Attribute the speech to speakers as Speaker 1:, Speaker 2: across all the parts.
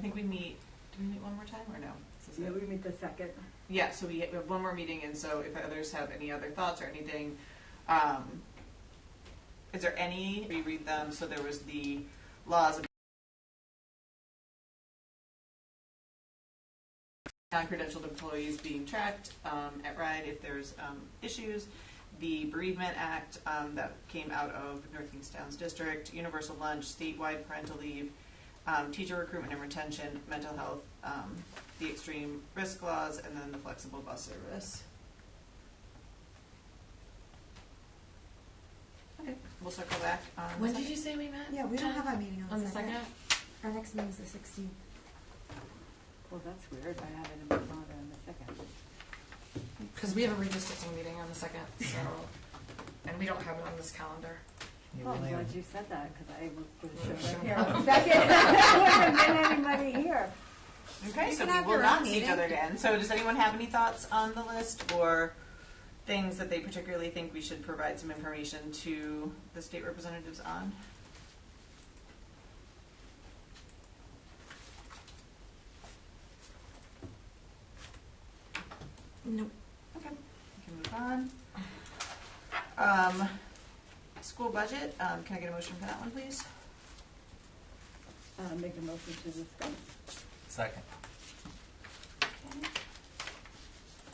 Speaker 1: think we meet, do we meet one more time or no? This is
Speaker 2: Yeah,
Speaker 1: it.
Speaker 2: we meet the second.
Speaker 1: Yeah, so we we have one more meeting, and so if others have any other thoughts or anything, um, is there any, reread them, so there was the laws of non-credentialed employees being tracked, um, at RIDE if there's, um, issues, the bereavement act, um, that came out of North Kingstown's district, universal lunch, statewide parental leave, um, teacher recruitment and retention, mental health, um, the extreme risk laws, and then the flexible bus service. Okay, we'll circle back on. the
Speaker 3: When did
Speaker 1: second.
Speaker 3: you say we met?
Speaker 4: Yeah, we don't have our meeting
Speaker 3: On the second?
Speaker 4: Our next meeting's the sixteenth.
Speaker 2: Well, that's weird. I have it in my calendar on the second.
Speaker 3: Because we have a redistricting meeting on the second, so, and we don't have it on this calendar.
Speaker 2: Oh, I'm glad you said that, because I was
Speaker 3: Sure.
Speaker 2: sure right here on the second. There wouldn't have been anybody here.
Speaker 1: Okay,
Speaker 4: You
Speaker 1: so
Speaker 4: can
Speaker 1: we
Speaker 4: have
Speaker 1: will
Speaker 4: your
Speaker 1: not
Speaker 4: own
Speaker 1: see each
Speaker 4: meeting.
Speaker 1: other again. So does anyone have any thoughts on the list or things that they particularly think we should provide some information to the state representatives on?
Speaker 4: Nope.
Speaker 1: Okay, we can move on. Um, school budget, um, can I get a motion for that one, please?
Speaker 2: Uh, Make a motion to discuss.
Speaker 5: Second.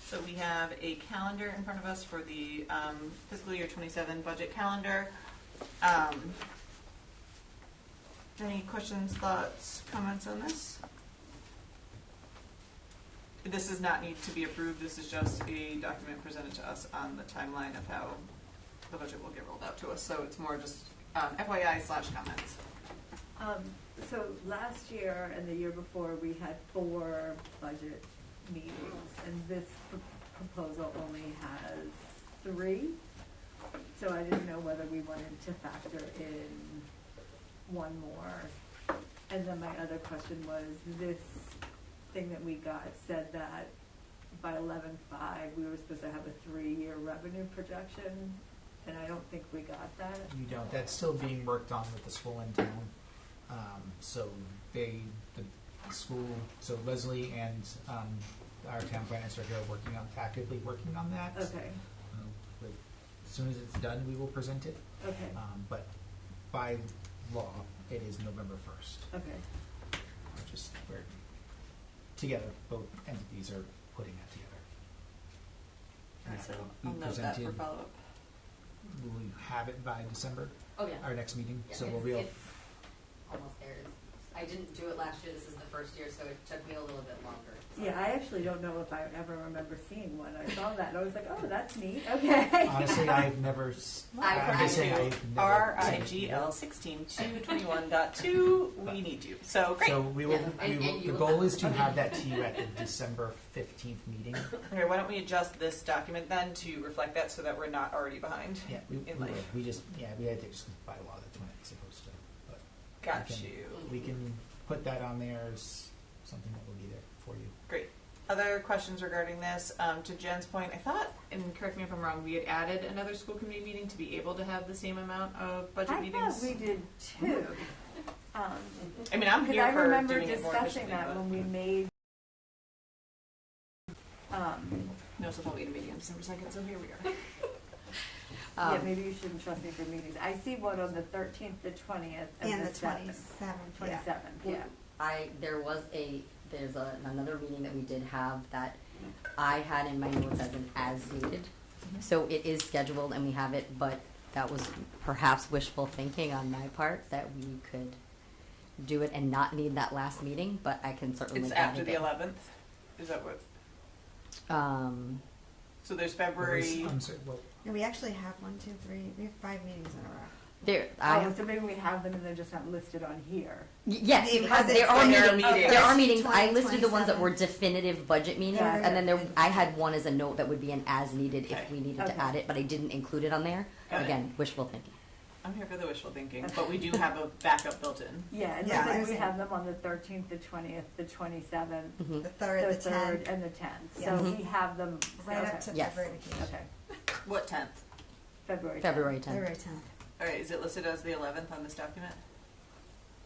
Speaker 1: So we have a calendar in front of us for the um, fiscal year '27 budget calendar. Um, Any questions, thoughts, comments on this? This does not need to be approved, this is just a document presented to us on the timeline of how the budget will get rolled out to us. So it's more just um, FYI slash comments.
Speaker 2: Um, So last year and the year before, we had four budget meetings, and this pr- proposal only has three. So I didn't know whether we wanted to factor in one more. And then my other question was, this thing that we got said that by eleven-five, we were supposed to have a three-year revenue projection, and I don't think we got that.
Speaker 5: You don't, that's still being worked on with the school in town. Um, so they, the school, so Leslie and, um, our town planners are here working on, actively working on that.
Speaker 2: Okay,
Speaker 5: Um, but As soon as it's done, we will present it,
Speaker 2: okay,
Speaker 5: um, but by law, it is November first,
Speaker 2: okay.
Speaker 5: which is where, together, both entities are putting that together. And
Speaker 1: So
Speaker 5: so
Speaker 1: I'll
Speaker 5: we
Speaker 1: note that for
Speaker 5: presented-
Speaker 1: follow-up.
Speaker 5: Will we have it by December,
Speaker 6: Oh, yeah.
Speaker 5: our next meeting?
Speaker 6: Yeah,
Speaker 5: So we'll
Speaker 6: it's-
Speaker 5: be, able-
Speaker 6: it's Almost there. It's- I didn't do it last year. This is the first year, so it took me a little bit longer. So-
Speaker 2: Yeah, I actually don't know if I ever remember seeing one. I saw that and I was like, oh, that's neat. Okay.
Speaker 5: honestly, I've never, s-
Speaker 6: I
Speaker 5: I'm just saying,
Speaker 1: R
Speaker 5: I've never.
Speaker 1: I G L sixteen two twenty one dot two, we need you, so great.
Speaker 5: So we will,
Speaker 6: Yeah,
Speaker 5: we
Speaker 6: and-
Speaker 5: will,
Speaker 6: and
Speaker 5: the
Speaker 6: you will
Speaker 5: goal
Speaker 6: have-
Speaker 5: is to have that to you at the December fifteenth meeting.
Speaker 1: Okay, why don't we adjust this document then to reflect that so that we're not already behind?
Speaker 5: Yeah, we, we
Speaker 1: In life.
Speaker 5: will. We just, yeah, we had to just by law, that's when it's supposed to, but. we
Speaker 1: Got
Speaker 5: can-
Speaker 1: you.
Speaker 5: We can put that on there as something that will be there for you.
Speaker 1: Great. Other questions regarding this? Um, to Jen's point, I thought, and correct me if I'm wrong, we had added another school committee meeting to be able to have the same amount of budget
Speaker 2: I
Speaker 1: meetings.
Speaker 2: thought we did two. Um,
Speaker 1: I mean, I'm
Speaker 2: because
Speaker 1: here
Speaker 2: I
Speaker 1: for
Speaker 2: remember
Speaker 1: doing it more
Speaker 2: discussing
Speaker 1: efficiently,
Speaker 2: that
Speaker 1: but-
Speaker 2: when we made, um,
Speaker 1: No, so I'll wait a meeting on December second, so here we are.
Speaker 2: yeah,
Speaker 6: Um,
Speaker 2: maybe you shouldn't trust me for meetings. I see one on the thirteenth, the twentieth,
Speaker 4: And
Speaker 2: and
Speaker 4: the
Speaker 2: the seventh.
Speaker 4: twenty-seventh, yeah.
Speaker 2: Twenty-seventh, yeah.
Speaker 6: I, there was a, there's a- another meeting that we did have that I had in my notes as an as needed.
Speaker 2: Mm-hmm.
Speaker 6: So it is scheduled and we have it, but that was perhaps wishful thinking on my part that we could do it and not need that last meeting, but I can certainly.
Speaker 1: It's
Speaker 6: make that
Speaker 1: after the
Speaker 6: happen.
Speaker 1: eleventh, is that what,
Speaker 6: Um,
Speaker 1: so there's
Speaker 5: What was-
Speaker 1: February,
Speaker 5: I'm sorry, what,
Speaker 4: No, we actually have one, two, three, we have five meetings in a row.
Speaker 6: there, I
Speaker 2: Oh, so maybe we have them and they're just not listed on here.
Speaker 6: Y- Yes,
Speaker 4: Because
Speaker 6: because
Speaker 4: it's
Speaker 6: there are
Speaker 4: their
Speaker 6: meetings.
Speaker 1: meetings.
Speaker 6: There are meetings. I
Speaker 4: Twenty,
Speaker 6: listed the ones that were
Speaker 4: 27.
Speaker 6: definitive budget meetings,
Speaker 2: Yeah.
Speaker 6: and then there, I had one as a note that would be an as needed
Speaker 1: Okay.
Speaker 6: if we needed
Speaker 2: Okay.
Speaker 6: to add it, but I didn't include it on there.
Speaker 1: Got it.
Speaker 6: Again, wishful thinking.
Speaker 1: I'm here for the wishful thinking, but we do have a backup built in.
Speaker 2: Yeah, and
Speaker 4: Yeah, I
Speaker 2: then we
Speaker 4: see.
Speaker 2: have them on the thirteenth, the twentieth, the twenty-seventh,
Speaker 4: The
Speaker 6: Mhm.
Speaker 4: third,
Speaker 2: the
Speaker 4: the
Speaker 2: third,
Speaker 4: tenth,
Speaker 2: and the tenth.
Speaker 4: Yeah.
Speaker 2: So we have them.
Speaker 4: right
Speaker 2: okay.
Speaker 4: up to
Speaker 6: Yes.
Speaker 4: February vacation,
Speaker 2: Okay,
Speaker 1: What tenth?
Speaker 2: February. tenth.
Speaker 6: February tenth.
Speaker 4: February tenth.
Speaker 1: All right, is it listed as the eleventh on this document?